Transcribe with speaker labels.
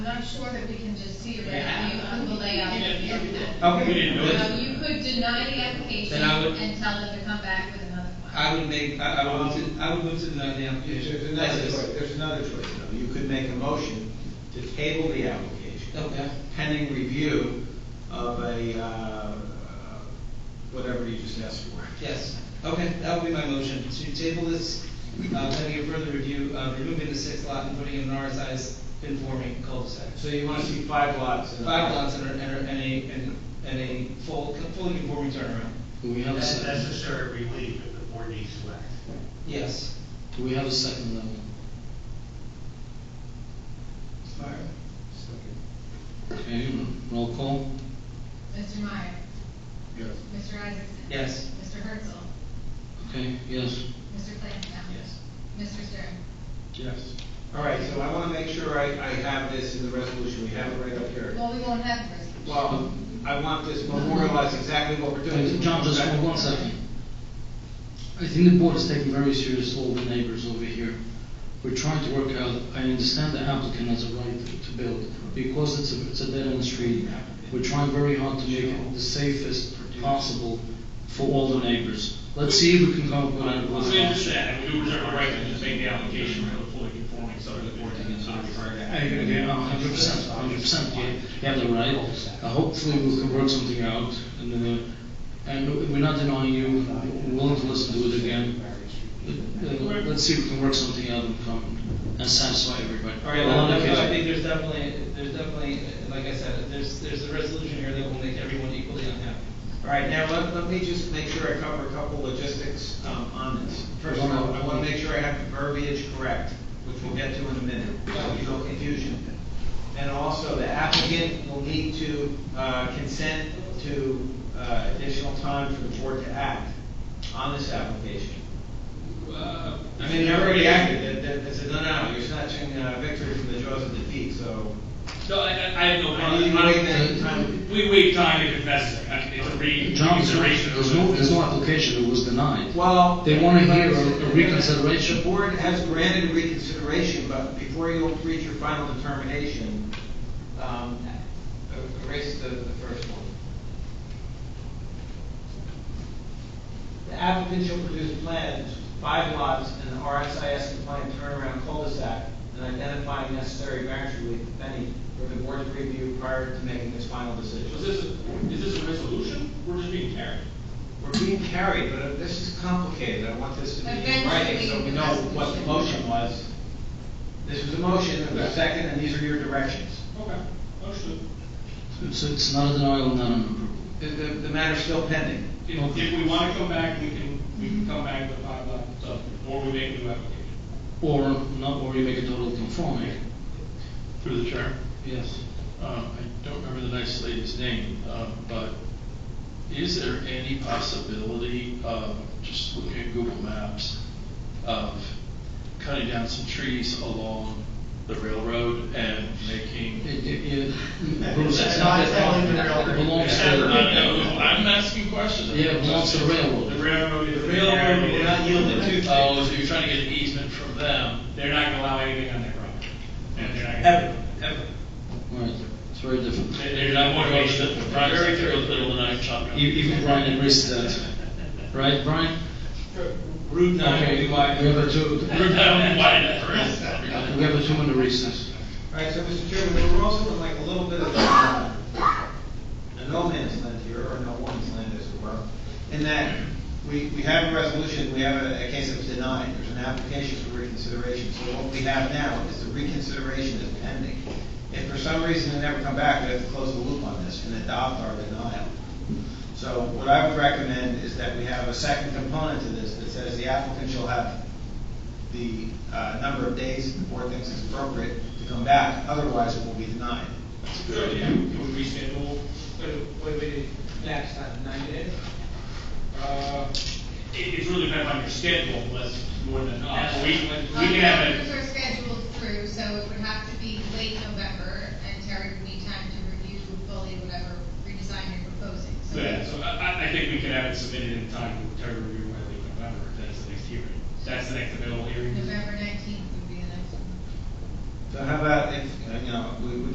Speaker 1: I'm not sure that we can just see it right now, you can belay out the impact.
Speaker 2: Okay.
Speaker 3: We didn't do it.
Speaker 1: Now, you could deny the application
Speaker 2: Then I would-
Speaker 1: and tell them to come back with another one.
Speaker 2: I would make, I, I would move to, I would move to deny the application.
Speaker 4: There's another
Speaker 2: That's
Speaker 4: choice,
Speaker 2: it.
Speaker 4: there's another choice, though. You could make a motion to table the application
Speaker 2: Okay,
Speaker 4: pending review of a, uh, whatever you just asked for.
Speaker 2: yes, okay, that would be my motion, to table this, uh, pending a further review, uh, removing the sixth lot and putting in an RSI's conforming cul-de-sac.
Speaker 4: So you want to see five lots? in a-
Speaker 2: Five lots and a, and a, and a, and- and a full, fully conforming turnaround,
Speaker 5: Do we have a
Speaker 6: That's
Speaker 5: second?
Speaker 6: necessary relief if the board needs to act.
Speaker 2: yes.
Speaker 5: Do we have a second level? Okay, roll call?
Speaker 1: Mr. Meyer? Yes. Mr. Isaacson?
Speaker 2: Yes.
Speaker 1: Mr. Herzl?
Speaker 5: Okay, yes.
Speaker 1: Mr. Flansbrough?
Speaker 4: Yes.
Speaker 1: Mr. Stern?
Speaker 4: Yes. All right, so I want to make sure I, I have this in the resolution, we have it right up here.
Speaker 1: Well, we won't have the resolution.
Speaker 4: Well, I want this memorialized exactly what we're
Speaker 5: Okay,
Speaker 4: doing.
Speaker 5: John, just one- one second. I think the board is taking very serious all the neighbors over here. We're trying to work out, I understand the applicant has a right to build, because it's a, it's a dead-end street. We're trying very hard to make it the safest possible for all the neighbors. Let's see if we can come up with an
Speaker 3: We understand, and we reserve the right to just make the application for the fully conforming subdivision.
Speaker 5: I agree, a hundred percent, a hundred percent, you you have the right. Uh, Hopefully, we can work something out, and, uh, and we're not denying you, we're willing to listen to it again. But, uh, Let's see if we can work something out and come and satisfy everybody.
Speaker 2: All right,
Speaker 5: Well,
Speaker 2: well,
Speaker 5: on
Speaker 2: that's- I
Speaker 5: occasion.
Speaker 2: think there's definitely, there's definitely, like I said, there's, there's a resolution here that will make everyone equally unhappy.
Speaker 4: All right, now, let, let me just make sure I cover a couple logistics, um, on this. First of all, I want to make sure I have the verbiage correct, which we'll get to in a minute, so there's no confusion. And also, the applicant will need to, uh, consent to, uh, additional time for the board to act on this application. Uh, I mean, they already acted, that, that, it's a no-no, you're snatching, uh, victory from the jaws of defeat, so.
Speaker 3: No, I, I I have no
Speaker 4: I need to wait that
Speaker 3: problem.
Speaker 4: time.
Speaker 3: We waive time if necessary, I mean, it's a re.
Speaker 5: John, there's no-
Speaker 3: reconsideration of
Speaker 5: there's
Speaker 3: the-
Speaker 5: no, there's no application, it was denied.
Speaker 4: Well.
Speaker 5: They wanna hear a-
Speaker 4: but-
Speaker 5: a reconsideration.
Speaker 4: The board has granted reconsideration, but before you reach your final determination, um, erase the, the first one. The applicant shall produce plans, five lots and an RSIS compliant turnaround cul-de-sac and identifying necessary variance relief, if any, for the board to review prior to making its final decision.
Speaker 3: Is this, a- is this a resolution? We're just being carried.
Speaker 4: We're being carried, but uh, this is complicated, I want this to be in writing, so we know what the motion was. This was a motion, it was a second, and these are your directions.
Speaker 3: Okay, understood.
Speaker 5: So it's not a denial, not an approval.
Speaker 4: The, the, the matter's still pending.
Speaker 3: If, if we want to come back, we can, we can come back with five lot subdivision, or we make a new application.
Speaker 5: Or not, or you make it totally conforming.
Speaker 7: Through the chair,
Speaker 5: Yes.
Speaker 7: uh, I don't remember the nice lady's name, uh, but is there any possibility of, just looking at Google Maps, of cutting down some trees along the railroad and making?
Speaker 5: It, it, it, Bruce, it's not that, it belongs to.
Speaker 7: Except, uh, no, I'm asking questions.
Speaker 5: Yeah, it belongs to the railroad.
Speaker 3: The railroad is.
Speaker 4: The railroad will not yield it to-
Speaker 7: Oh, so you're trying to get an easement from them?
Speaker 3: They're not going to allow anything on their property. And they're not.
Speaker 4: Ever,
Speaker 3: gonna-
Speaker 4: ever.
Speaker 5: Right, it's very different.
Speaker 7: They- They're not going to go to the front, they're going to the middle of the night shotgun.
Speaker 5: E- Even Brian agrees to that, right, Brian?
Speaker 2: Route nine will
Speaker 5: Okay,
Speaker 2: be
Speaker 5: we
Speaker 2: wide.
Speaker 5: have a two,
Speaker 7: I don't know why that first.
Speaker 5: we have a two minute recess.
Speaker 4: All right, so, Mr. Chairman, we're also in like a little bit of a, a no man's land here, or no woman's land as it were, in that we, we have a resolution, we have a, a case that was denied, there's an application for reconsideration, so what we have now is the reconsideration is pending. If for some reason they never come back, we have to close the loop on this and adopt our denial. So what I would recommend is that we have a second component to this that says the applicant shall have the uh, number of days the board thinks is appropriate to come back, otherwise it will be denied.
Speaker 3: So, yeah, would we schedule,
Speaker 2: What do we do next time, ninety days?
Speaker 3: uh, it, it's really depends on your schedule, less, more than us. We, we
Speaker 1: Well,
Speaker 3: can
Speaker 1: the
Speaker 3: have
Speaker 1: numbers
Speaker 3: it,
Speaker 1: are scheduled through, so it would have to be late November, and Terry would need time to review fully whatever redesign you're proposing, so.
Speaker 3: yeah, so I- I, I think we can have it submitted in time for Terry review by late November, if that's the next hearing. That's the next available hearing.
Speaker 1: November 19th.